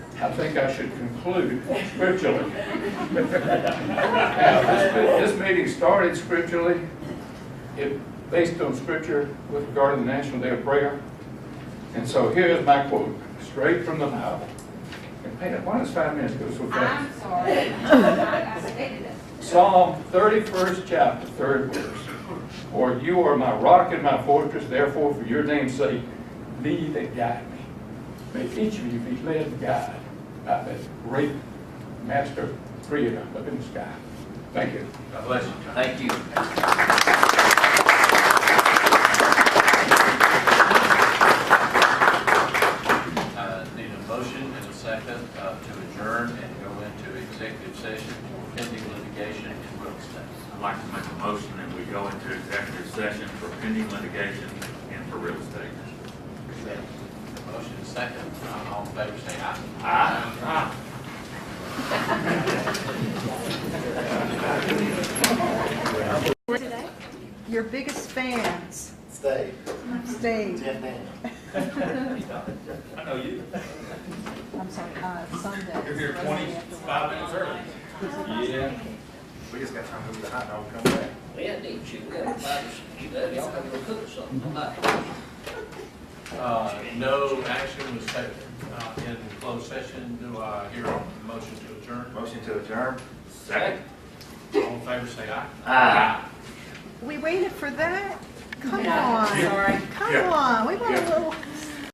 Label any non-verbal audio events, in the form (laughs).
I think I should conclude scripturally. Now, this, this meeting started scripturally, it, based on scripture with regard to the National Day of Prayer. And so here is my quote, straight from the Bible. And man, why does five minutes go so fast? I'm (laughs) sorry. I I stated it. Psalm thirty-first chapter, third verse. For you are my rock and my fortress, therefore for your name's sake, lead and guide me. May each of you be led and guided by that great master creator up in the sky. Thank you. God bless you. Uh, Thank you. Uh, Need a motion and a second uh, to adjourn and go into executive session for pending litigation in Williston. I'd like to make a motion that we go into executive session for pending litigation and for real estate. Motion and second, Uh, all in favor say aye. Your biggest fans Stay. stayed. Jeff Daniels. (laughs) I know you. I'm sorry, uh, Sunday. You're here twenty-five minutes early. Yeah. We just got time to move the hot dog, come back. We had need you, we had five, you know, y'all gotta go cook something, I'm not- Uh, No action was taken uh, in closed session. Do I hear a motion to adjourn? Motion to adjourn. Second. All in favor say aye. Aye. We waited for that? Come Yeah, on. Sorry. Come on, we want a little.